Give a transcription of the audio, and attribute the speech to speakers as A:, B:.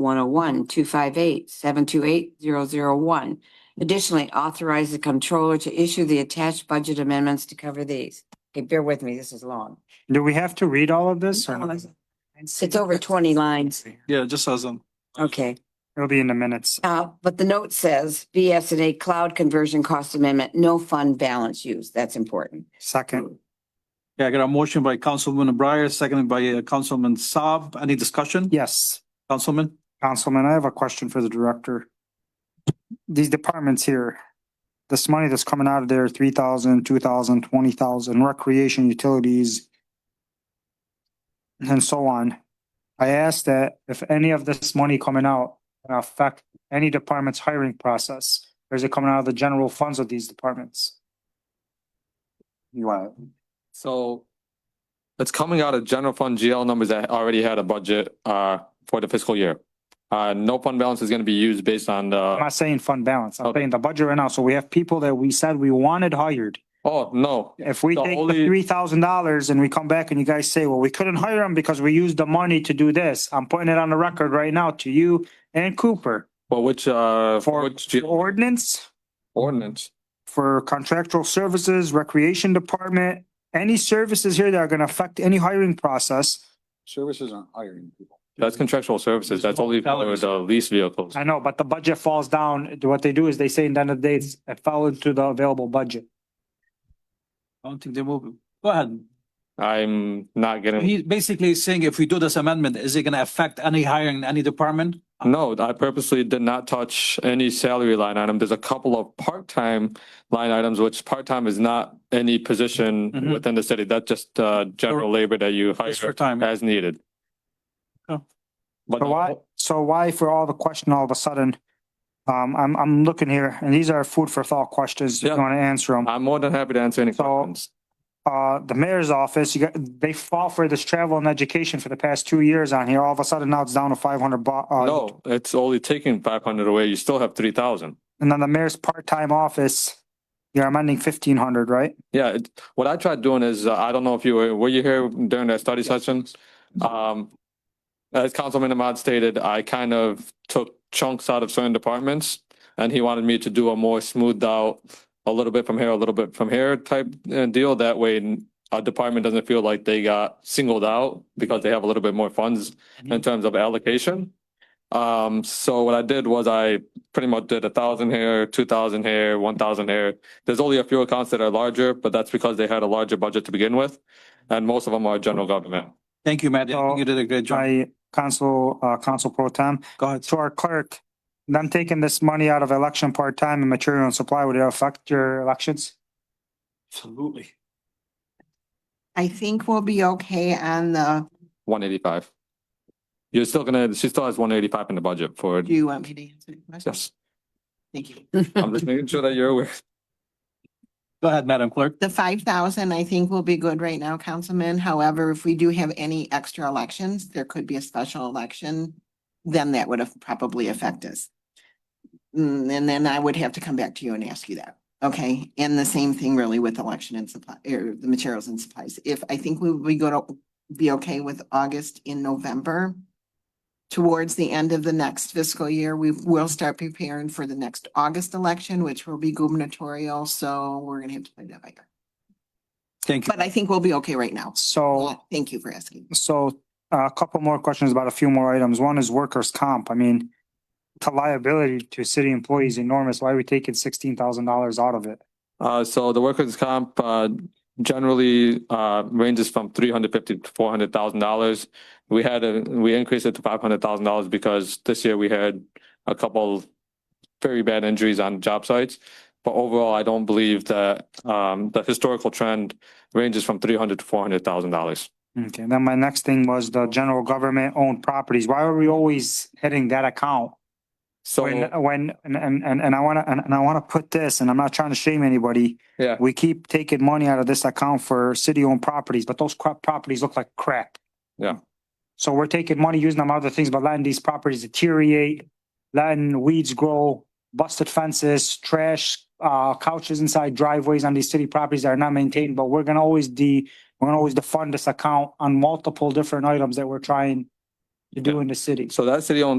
A: one oh one, two five eight, seven two eight, zero zero one. Additionally, authorize the comptroller to issue the attached budget amendments to cover these. Okay, bear with me, this is long.
B: Do we have to read all of this? or no?
A: It's over twenty lines.
C: Yeah, it just um, says them.
A: Okay.
B: It'll be in the minutes.
A: Uh, but the note says BSNA cloud conversion cost amendment, no fund balance used. That's important.
B: Second,
C: Yeah, I got a motion by Councilman Breyer, seconded by uh, Councilman Saab. Any discussion?
B: yes,
C: Councilman?
B: Councilman, I have a question for the director. These departments here, this money that's coming out of there, three thousand, two thousand, twenty thousand, recreation utilities, and so on. I asked that if any of this money coming out can affect any department's hiring process, or is it coming out of the general funds of these departments? You want,
D: So it's coming out of general fund GL numbers that already had a budget uh for the fiscal year. Uh, no fund balance is gonna be used based on
B: I'm
D: the,
B: not saying fund balance. I'm
D: Okay.
B: saying the budget right now. So we have people that we said we wanted hired.
D: oh, no.
B: If we
D: The
B: take the
D: only-
B: three thousand dollars and we come back and you guys say, well, we couldn't hire him because we used the money to do this. I'm putting it on the record right now to you and Cooper.
D: But which uh,
B: For
D: which G-
B: ordinance,
D: ordinance?
B: for contractual services, recreation department, any services here that are gonna affect any hiring process.
C: Services aren't hiring people.
D: That's contractual services. That's only for the lease vehicles.
B: I know, but the budget falls down. What they do is they say in the end of the day, it's- it fell into the available budget.
C: I don't think they move. Go ahead.
D: I'm not getting,
C: He's basically saying if we do this amendment, is it gonna affect any hiring in any department?
D: no, I purposely did not touch any salary line item. There's a couple of part-time line items, which part-time is not any position
C: Mhm.
D: within the city. That's just uh general labor that you hire.
C: Just for time.
D: as needed.
C: Oh.
D: But
B: So why,
D: no,
B: so why for all the question all of a sudden? Um, I'm, I'm looking here and these are food for thought questions. If
D: Yeah. Uh,
B: you want to answer them.
D: I'm more than happy to answer any
B: So-
D: questions.
B: Uh, the mayor's office, you got, they fall for this travel and education for the past two years on here. All of a sudden now it's down to five hundred bucks. Uh,
D: No, it's only taking five hundred away. You still have three thousand.
B: and then the mayor's part-time office, you're amending fifteen hundred, right?
D: Yeah, it- what I tried doing is, uh, I don't know if you were, were you here during that study session? Um, as Councilman Ahmad stated, I kind of took chunks out of certain departments and he wanted me to do a more smoothed out, a little bit from here, a little bit from here type uh, deal. That way a department doesn't feel like they got singled out because they have a little bit more funds in terms of allocation. Um, so what I did was I pretty much did a thousand here, two thousand here, one thousand here. There's only a few accounts that are larger, but that's because they had a larger budget to begin with. And most of them are general government.
C: Thank you, Matt. I
E: Oh,
C: think You did a great job.
B: By council, uh, council pro tem,
C: Go ahead.
B: to our clerk, them taking this money out of election part-time and material and supply, would it affect your elections?
C: Absolutely.
E: I think we'll be okay on the,
D: One eighty-five. You're still gonna, she still has one eighty-five in the budget for,
E: do you want me to answer the question?
D: yes.
E: Thank you.
D: I'm just making sure that you're aware.
C: Go ahead, Madam Clerk.
E: The five thousand, I think, will be good right now, Councilman. However, if we do have any extra elections, there could be a special election, then that would have probably affect us. Mm, And then I would have to come back to you and ask you that, okay? And the same thing really with election and supply, or the materials and supplies. If, I think we would go to be okay with August in November. Towards the end of the next fiscal year, we will start preparing for the next August election, which will be gubernatorial, so we're gonna have to play that by ear.
C: Thank you.
E: But I think we'll be okay right now. uh,
B: So
E: Thank you for asking.
B: So uh, a couple more questions about a few more items. One is workers' comp. I mean, the liability to city employees enormous. Why are we taking sixteen thousand dollars out of it?
D: Uh, so the workers' comp, uh, generally, uh, ranges from three hundred fifty to four hundred thousand dollars. We had a, we increased it to five hundred thousand dollars because this year we had a couple very bad injuries on job sites. But overall, I don't believe that, um, the historical trend ranges from three hundred to four hundred thousand dollars.
B: Okay, then my next thing was the general government owned properties. Why are we always hitting that account?
D: So.
B: When, uh, when, and, and, and and I wanna, and and I wanna put this, and I'm not trying to shame anybody.
D: Yeah.
B: We keep taking money out of this account for city owned properties, but those crap properties look like crap.
D: Yeah.
B: So we're taking money, using them on other things, but letting these properties deteriorate, letting weeds grow, busted fences, trash, uh, couches inside driveways on these city properties that are not maintained, but we're gonna always de, we're gonna always defund this account on multiple different items that we're trying to do in the city.
D: So that city-owned